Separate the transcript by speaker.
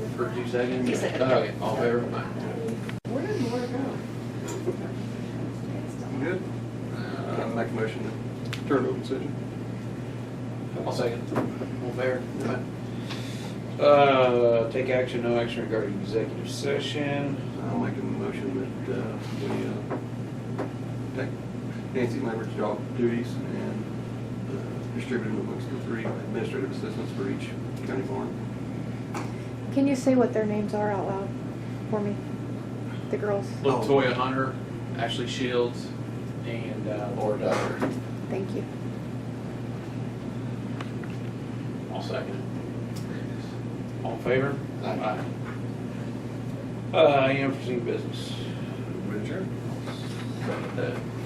Speaker 1: second? Oh,
Speaker 2: You second.
Speaker 1: Okay, all in favor, Aye.
Speaker 3: Where did Laura go?
Speaker 4: You Good. I Uh, make a motion to turn over decision.
Speaker 1: I'll second. All fair. Uh, take action, no action regarding executive session.
Speaker 4: I'll make a motion that uh, we uh, take Nancy Lambert's job duties and uh, distribute them amongst the three administrative assistants for each county board.
Speaker 5: Can you say what their names are out loud for me? The girls.
Speaker 1: Latoya Hunter, Ashley Shields, and uh, Laura Dyer.
Speaker 5: Thank you.
Speaker 1: I'll second it. All in favor? Aye. Uh, any unforeseen business?
Speaker 4: Richard?
Speaker 1: Second that.